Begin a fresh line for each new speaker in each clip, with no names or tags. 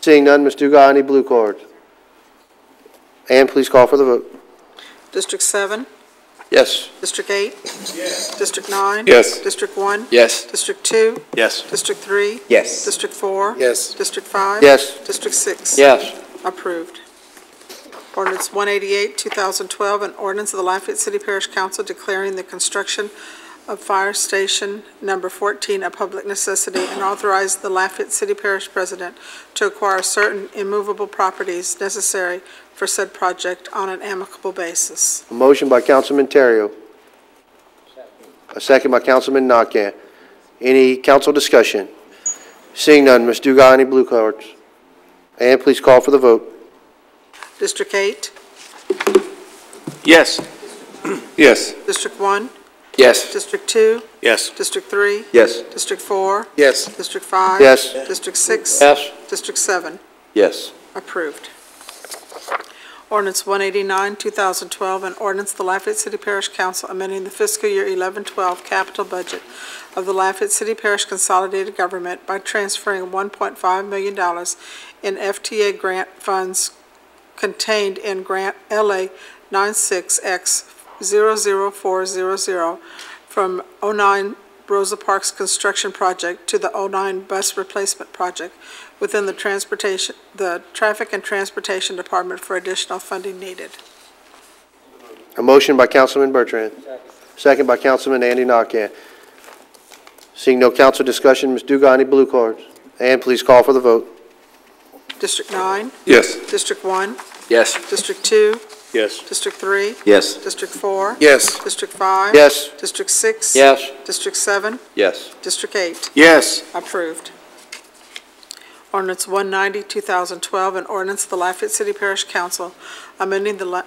Seeing none, Ms. Dugai, any blue cards? And please call for the vote.
District seven,
Yes.
District eight? Yes. District nine?
Yes.
District one?
Yes.
District two?
Yes.
District three?
Yes.
District four?
Yes.
District five?
Yes.
District six?
Yes.
Approved. Ordinance 188, 2012, an ordinance of the Lafayette City Parish Council declaring the construction of Fire Station Number 14 a public necessity and authorize the Lafayette City Parish President to acquire certain immovable properties necessary for said project on an amicable basis.
A motion by Councilman Terrio. A second by Councilman Nakane. Any council discussion? Seeing none, Ms. Dugai, any blue cards? And please call for the vote.
District 8,
Yes. Yes.
District 1,
Yes.
District 2,
Yes.
District 3,
Yes.
District 4,
Yes.
District 5.
Yes.
District 6.
Yes.
District 7.
Yes.
Approved. Ordinance 189, 2012, an ordinance of the Lafayette City Parish Council amending the fiscal year 11-12 capital budget of the Lafayette City Parish Consolidated Government by transferring $1.5 million in FTA grant funds contained in Grant LA 96X00400 from 09 Rosa Parks Construction Project to the 09 Bus Replacement Project within the transportation, the Traffic and Transportation Department for additional funding needed.
A motion by Councilman Bertrand. Second by Councilman Andy Nakane. Seeing no council discussion, Ms. Dugai, any blue cards? And please call for the vote.
District 9,
Yes.
District 1,
Yes.
District 2,
Yes.
District 3,
Yes.
District 4,
Yes.
District 5.
Yes.
District 6.
Yes.
District 7,
Yes.
District 8.
Yes.
Approved. Ordinance 190, 2012, an ordinance of the Lafayette City Parish Council amending the, La-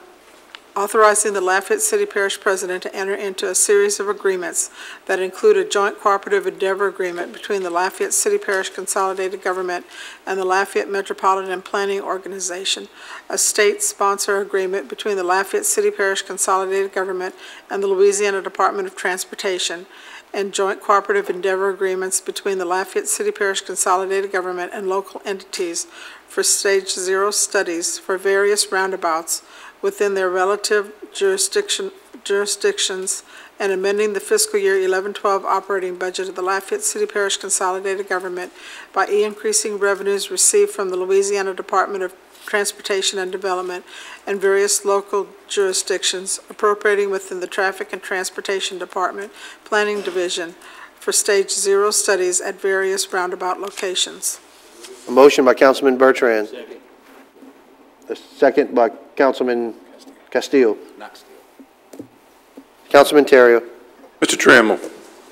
authorizing the Lafayette City Parish President to enter into a series of agreements that include a joint cooperative endeavor agreement between the Lafayette City Parish Consolidated Government and the Lafayette Metropolitan Planning Organization, a state sponsor agreement between the Lafayette City Parish Consolidated Government and the Louisiana Department of Transportation, and joint cooperative endeavor agreements between the Lafayette City Parish Consolidated Government and local entities for Stage Zero studies for various roundabouts within their relative jurisdiction, jurisdictions, and amending the fiscal year 11-12 operating budget of the Lafayette City Parish Consolidated Government by increasing revenues received from the Louisiana Department of Transportation and Development and various local jurisdictions appropriating within the Traffic and Transportation Department Planning Division for Stage Zero studies at various roundabout locations.
A motion by Councilman Bertrand. A second by Councilman Castillo. Councilman Terrio.
Mr. Trammell,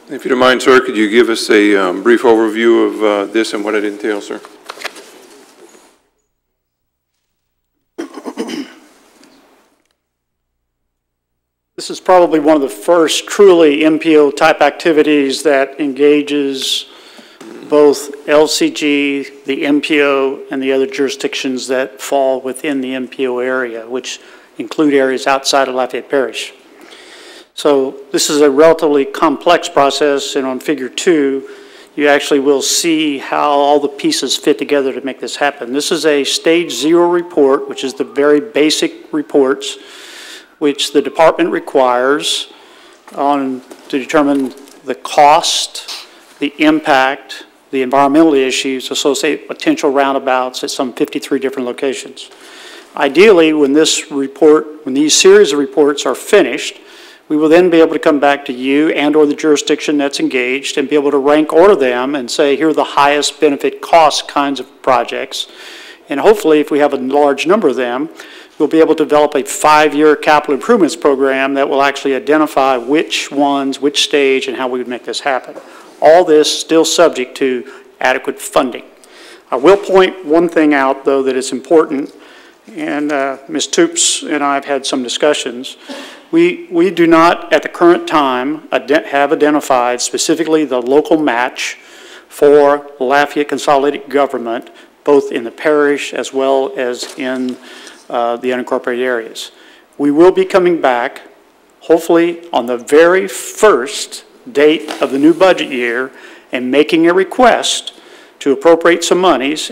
if you don't mind, sir, could you give us a um, brief overview of uh, this and what it entails, sir?
This is probably one of the first truly MPO-type activities that engages both LCG, the MPO, and the other jurisdictions that fall within the MPO area, which include areas outside of Lafayette Parish. So this is a relatively complex process, and on Figure 2, you actually will see how all the pieces fit together to make this happen. This is a Stage Zero report, which is the very basic reports which the department requires on, to determine the cost, the impact, the environmental issues associated with potential roundabouts at some 53 different locations. Ideally, when this report, when these series of reports are finished, we will then be able to come back to you and/or the jurisdiction that's engaged and be able to rank order them and say, here are the highest benefit cost kinds of projects. And hopefully, if we have a large number of them, we'll be able to develop a five-year capital improvements program that will actually identify which ones, which stage, and how we would make this happen. All this still subject to adequate funding. I will point one thing out, though, that is important, and uh, Ms. Toops and I have had some discussions. We, we do not, at the current time, ident- have identified specifically the local match for Lafayette Consolidated Government, both in the parish as well as in uh, the unincorporated areas. We will be coming back, hopefully, on the very first date of the new budget year, and making a request to appropriate some monies